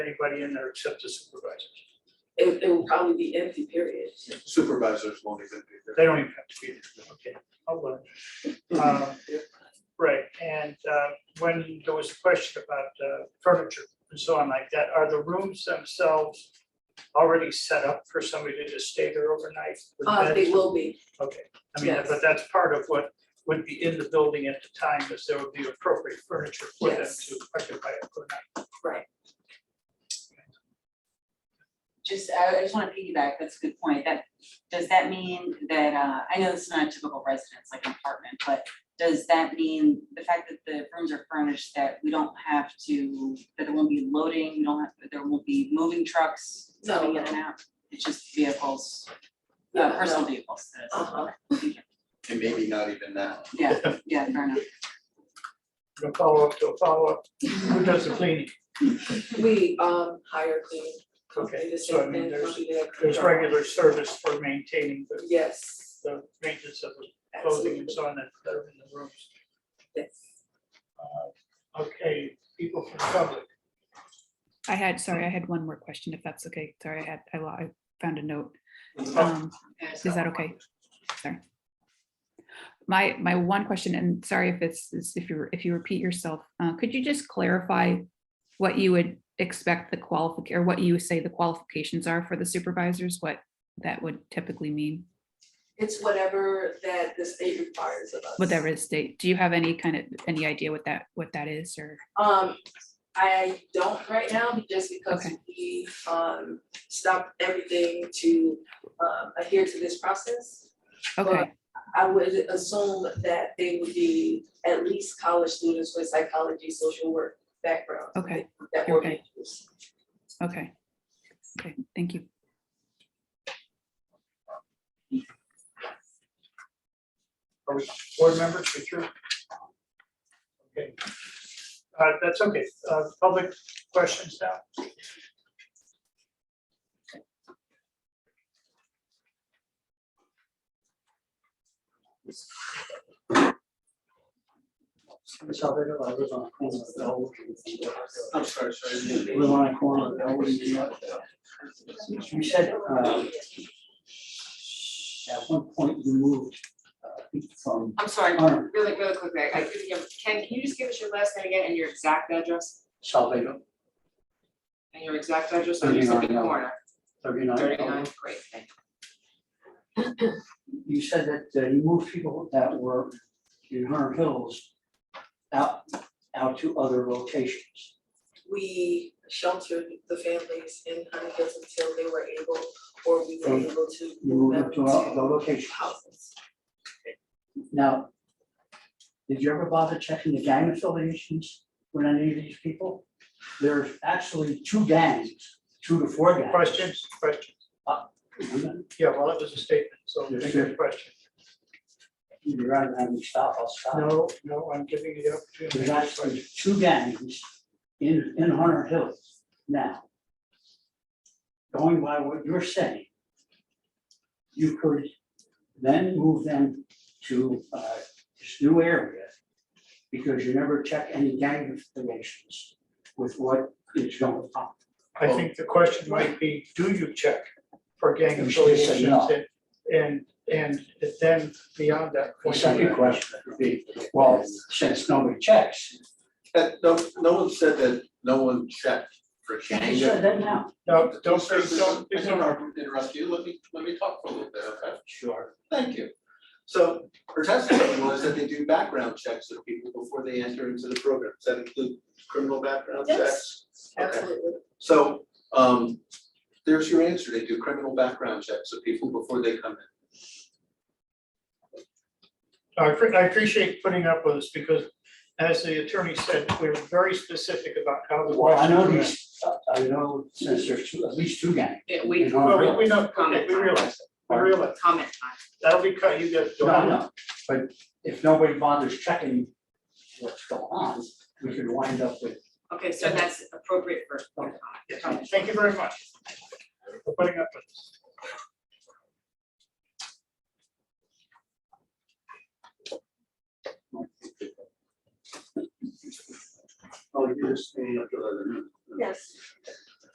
anybody in there except the supervisors. It would, it would probably be empty, period. Supervisors won't even be there. They don't even have to be there, okay, I'll let them. Um, Right, and uh, when there was a question about uh, furniture and so on like that, are the rooms themselves already set up for somebody to just stay there overnight? with Uh, beds? they will be, Okay, I mean, Yes. but that's part of what would be in the building at the time, is there would be appropriate furniture for them Yes. to occupy it for night. right. Just, I I just wanna piggyback, that's a good point, that, does that mean that, uh, I know this is not a typical residence, like an apartment, but does that mean the fact that the rooms are furnished, that we don't have to, that there won't be loading, we don't have, that there won't be moving trucks No, coming in no. and out? It's just vehicles, Yeah, uh, personal no. vehicles, that is- Uh-huh, And maybe not even now. yeah, yeah, fair enough. From follow-up to a follow-up, who does the cleaning? we, um, hire cleaning company, Okay, the so I same mean, thing, there's, company that. there's regular service for maintaining the, Yes, the maintenance of the clothing absolutely, and so on that that are in the rooms. yes. Uh, Okay, people from public, I had, sorry, I had one more question, if that's okay. Sorry, I had, I lo- I found a note. Uh, Um, Is that okay? Sorry. My, my one question, and sorry if it's, is if you, if you repeat yourself, uh, could you just clarify what you would expect the qualific, or what you say the qualifications are for the supervisors, what that would typically mean? It's whatever that the state requires of us. Whatever is state, do you have any kind of, any idea what that, what that is, or? Um, I don't right now, just because Okay. we, um, stopped everything to, um, adhere to this process. Well, Okay, I would assume that they would be at least college students with psychology, social work background. Okay. That were Okay. majors. okay. Okay, thank you. are we board members, we through? Okay. Uh, that's okay, uh, public questions now? Salvador, I live on a corner of Elwood. I'm sorry, sorry. Live on a corner of Elwood and York. You said, uh, at one point you moved, uh, from I'm sorry, Honor. really, really quickly, I couldn't give, Ken, can you just give us your last name again and your exact address? Salvador, And your exact address, or you said the 39, no. corner, thirty-nine. Elwood. thirty-nine, great, thank you. You said that uh, you moved people that were in Hunter Hills out, out to other locations. We sheltered the families in Huntington until they were able, or we were Um, able to You move them moved them to other to locations. houses. Now, did you ever bother checking the gang affiliations with any of these people? There's actually two gangs, two to four gangs. Questions, questions, yeah, well, that was a statement, so Yes, make sir. a question. You'd rather have me stop, I'll stop. No, no, I'm giving you the opportunity. to There's make a question. actually two gangs in, in Hunter Hills now. Going by what you're saying, you could then move them to uh, this new area because you never check any gang affiliations with what is going on. I think the question might be, do you check for gang You should say affiliations? no. and- And, and then beyond that The point. second question would be, well, since nobody checks, That, no, no one said that no one checked for you change. said that now. No, don't, Don't, say- don't, I there's don't no- want to interrupt you, let me, let me talk for a little bit, okay? Sure. Thank you. So her testimony was that they do background checks of people before they enter into the program. Does that include criminal background Yes. checks? Okay. Absolutely, So, um, there's your answer. They do criminal background checks of people before they come in. I appre- I appreciate putting up with this because as the attorney said, we're very specific about how the. Well, I know question- these, I know since there's two, at least two gangs. Yeah, in we, Hunter Well, Hills. Oh, we- we know, okay, Comment. we realize that, we realize, comment time. that'll be cut, you get. No, no, but if nobody bothers checking what's going on, we could wind up with, Okay, so that's appropriate for comment. Yes, Thank you very much for putting up with this. Oh, you just staying up till other. yes.